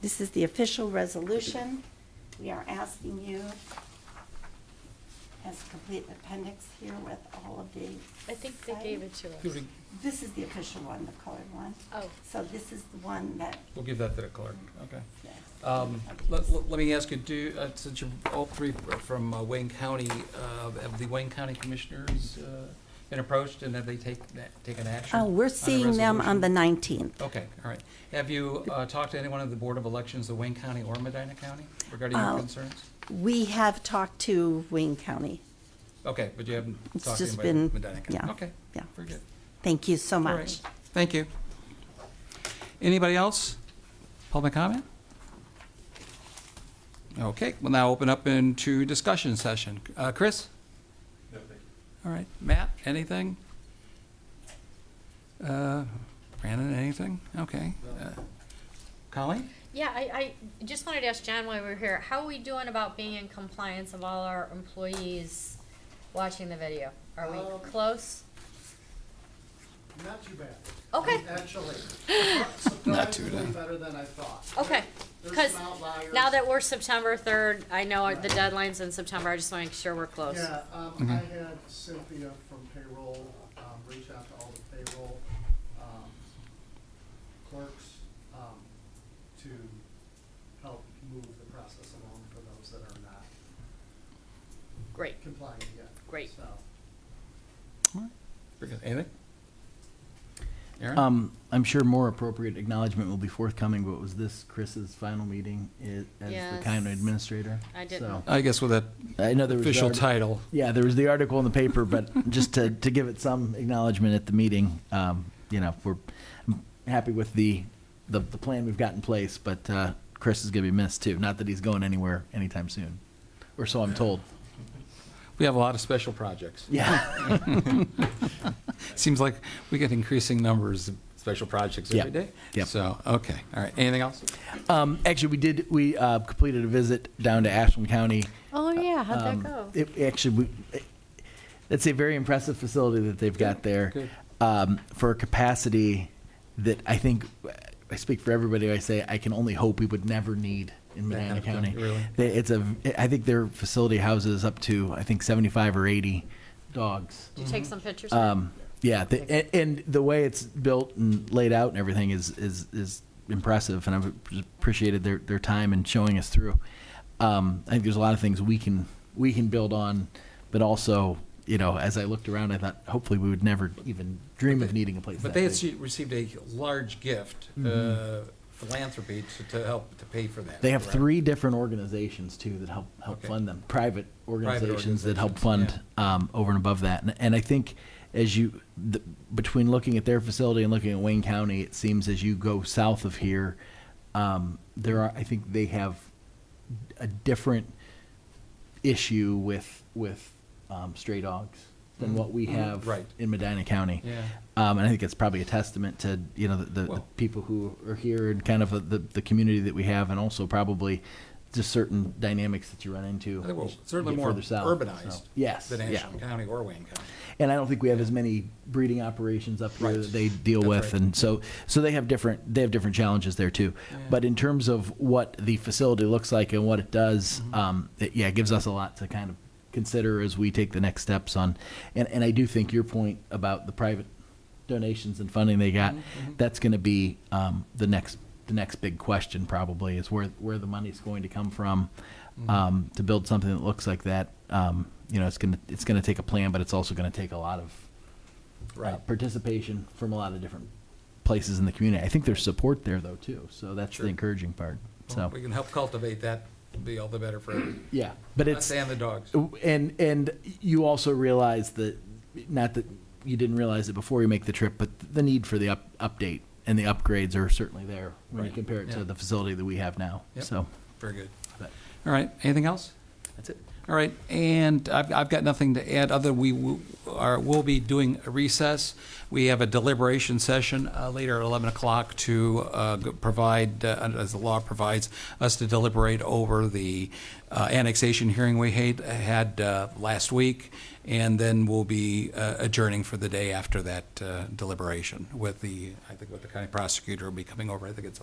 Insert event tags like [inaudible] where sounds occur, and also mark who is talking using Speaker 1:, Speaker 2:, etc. Speaker 1: This is the official resolution. We are asking you, as a complete appendix here with all of the.
Speaker 2: I think they gave it to us.
Speaker 3: Give it-
Speaker 1: This is the official one, the colored one.
Speaker 2: Oh.
Speaker 1: So this is the one that,
Speaker 3: We'll give that to the clerk, okay.
Speaker 1: yes.
Speaker 3: Um, Let let- let me ask you, do, uh, since you're all three from uh, Wayne County, uh, have the Wayne County Commissioners uh, been approached and have they take- taken action?
Speaker 1: Oh,
Speaker 3: on
Speaker 1: we're
Speaker 3: a
Speaker 1: seeing them on the
Speaker 3: resolution?
Speaker 1: 19th.
Speaker 3: Okay, all right. Have you uh, talked to anyone of the Board of Elections of Wayne County or Medina County regarding your
Speaker 1: Uh,
Speaker 3: concerns?
Speaker 1: We have talked to Wayne County.
Speaker 3: Okay, but you haven't
Speaker 1: It's
Speaker 3: talked to
Speaker 1: just
Speaker 3: anybody in
Speaker 1: been-
Speaker 3: Medina County?
Speaker 1: yeah,
Speaker 3: Okay,
Speaker 1: yeah.
Speaker 3: very good.
Speaker 1: Thank you so
Speaker 3: All
Speaker 1: much.
Speaker 3: right. Thank you. Anybody else? Public comment? Okay, we'll now open up into discussion session. Uh, Chris? No, thank you. All right, Matt, anything? Uh, Brandon, anything? Okay. Uh, Colleen?
Speaker 2: Yeah, I, I just wanted to ask John while we were here, how are we doing about being in compliance of all our employees watching the video? Are we
Speaker 4: Um,
Speaker 2: close?
Speaker 4: Not too bad.
Speaker 2: Okay.
Speaker 4: Actually.
Speaker 3: [laughs] Not too
Speaker 4: surprisingly
Speaker 3: bad.
Speaker 4: Better than I thought.
Speaker 2: Okay,
Speaker 4: There's
Speaker 2: because
Speaker 4: some outliers.
Speaker 2: now that we're September third, I know our- the deadline's in September, I just want to make sure we're close.
Speaker 4: Yeah,
Speaker 3: Mm-hmm.
Speaker 4: um, I had Cynthia from payroll, um, reach out to all the payroll, um, clerks, um, to help move the process along for those that are not
Speaker 2: Great,
Speaker 4: complying yet.
Speaker 2: Great.
Speaker 4: So,
Speaker 3: All right, Very good. Anything? Aaron?
Speaker 5: Um, I'm sure more appropriate acknowledgement will be forthcoming, but was this Chris's final meeting i- as the county
Speaker 2: Yes.
Speaker 5: administrator?
Speaker 2: I didn't.
Speaker 5: So-
Speaker 3: I guess with that
Speaker 5: I know there was. the
Speaker 3: official
Speaker 5: arti-
Speaker 3: title.
Speaker 5: Yeah, there was the article in the
Speaker 2: [laughs]
Speaker 5: paper, but just to, to give it some acknowledgement at the meeting, um, you know, we're I'm happy with the, the, the plan we've got in place, but, uh, Chris is gonna be missed too. Not that he's going anywhere anytime soon, or so I'm told.
Speaker 3: We have a lot of special projects.
Speaker 5: Yeah.
Speaker 3: Seems like we get increasing numbers of special projects
Speaker 5: Yeah.
Speaker 3: every day.
Speaker 5: Yeah.
Speaker 3: So, okay, all right, anything else?
Speaker 5: Um, actually, we did, we, uh, completed a visit down to Ashland County.
Speaker 2: Oh, yeah, how'd
Speaker 5: Um,
Speaker 2: that go?
Speaker 5: It actually, we, it- it's a very impressive facility that they've
Speaker 3: good.
Speaker 5: got there um, for a capacity that I think I speak for everybody. when I say I can only hope we would never need in
Speaker 3: That kind
Speaker 5: Medina
Speaker 3: of thing,
Speaker 5: County.
Speaker 3: really.
Speaker 5: They- It's a, I think their facility houses up to I think seventy-five or eighty dogs.
Speaker 2: Did you take some pictures?
Speaker 5: Um, yeah, the, and, and the way it's built and laid out and everything is is is impressive, and I've appreciated their their time and showing us through. Um, I think there's a lot of things we can we can build on, but also you know, as I looked around, I thought hopefully we would never even dream of needing a place.
Speaker 3: But
Speaker 5: that
Speaker 3: they had
Speaker 5: big.
Speaker 3: se- received a large gift, uh, philanthropy to- to help, to pay for that.
Speaker 5: Mm-hmm. They have
Speaker 3: correct?
Speaker 5: three different organizations too that help help
Speaker 3: Okay.
Speaker 5: fund them. Private organizations that help
Speaker 3: organizations,
Speaker 5: fund um, over and above that. And, and I think as you the, between looking at their facility and looking at Wayne County, it seems as you go south of here, um, there are I think they have a different issue with with um, stray dogs than what we
Speaker 3: Mhm.
Speaker 5: have
Speaker 3: Right.
Speaker 5: in Medina County.
Speaker 3: Yeah.
Speaker 5: Um, and I think it's probably a testament to you know the, the, the
Speaker 3: Well-
Speaker 5: people who are here and kind of the, the community that we have, and also probably just certain dynamics that you run into.
Speaker 3: I think we're
Speaker 5: as you
Speaker 3: Certainly
Speaker 5: get
Speaker 3: more
Speaker 5: further south.
Speaker 3: urbanized.
Speaker 5: So, yes,
Speaker 3: Than
Speaker 5: yeah.
Speaker 3: Ashland County or Wayne County.
Speaker 5: And I don't think we have as many breeding operations up here
Speaker 3: Right.
Speaker 5: that they deal
Speaker 3: That's
Speaker 5: with,
Speaker 3: right.
Speaker 5: and so so they have different they have different challenges there too.
Speaker 3: Yeah.
Speaker 5: But in terms of what the facility looks like and what it does, um, it, yeah, it gives us a lot to kind of consider as we take the next steps on. And and I do think your point about the private donations and funding they got, that's going to be um, the next the next big question probably is where where the money's going to come from um, to build something that looks like that. Um, you know, it's gonna it's gonna take a plan, but it's also gonna take a lot of uh,
Speaker 3: Right.
Speaker 5: participation from a lot of different places in the community. I think there's support there though too, so that's
Speaker 3: Sure.
Speaker 5: the encouraging part.
Speaker 3: Well,
Speaker 5: So
Speaker 3: We can help cultivate that, be all the better for, everyone.
Speaker 5: yeah, but
Speaker 3: not
Speaker 5: it's
Speaker 3: saying the dogs.
Speaker 5: and and you also realize that not that you didn't realize it before you make the trip, but the need for the up, update and the upgrades are certainly there when
Speaker 3: Right.
Speaker 5: you compare it
Speaker 3: Yeah.
Speaker 5: to the facility that we have now.
Speaker 3: Yep.
Speaker 5: So
Speaker 3: Very good.
Speaker 5: but
Speaker 3: All right, anything else?
Speaker 5: that's it.
Speaker 3: All right, and I've, I've got nothing to add, other we w- are, will be doing a recess. We have a deliberation session uh, later at 11 o'clock to uh, g- provide, uh, as the law provides, us to deliberate over the uh, annexation hearing we had, had uh, last week, and then we'll be uh, adjourning for the day after that uh, deliberation with the, I think with the county prosecutor will be coming over, I think it's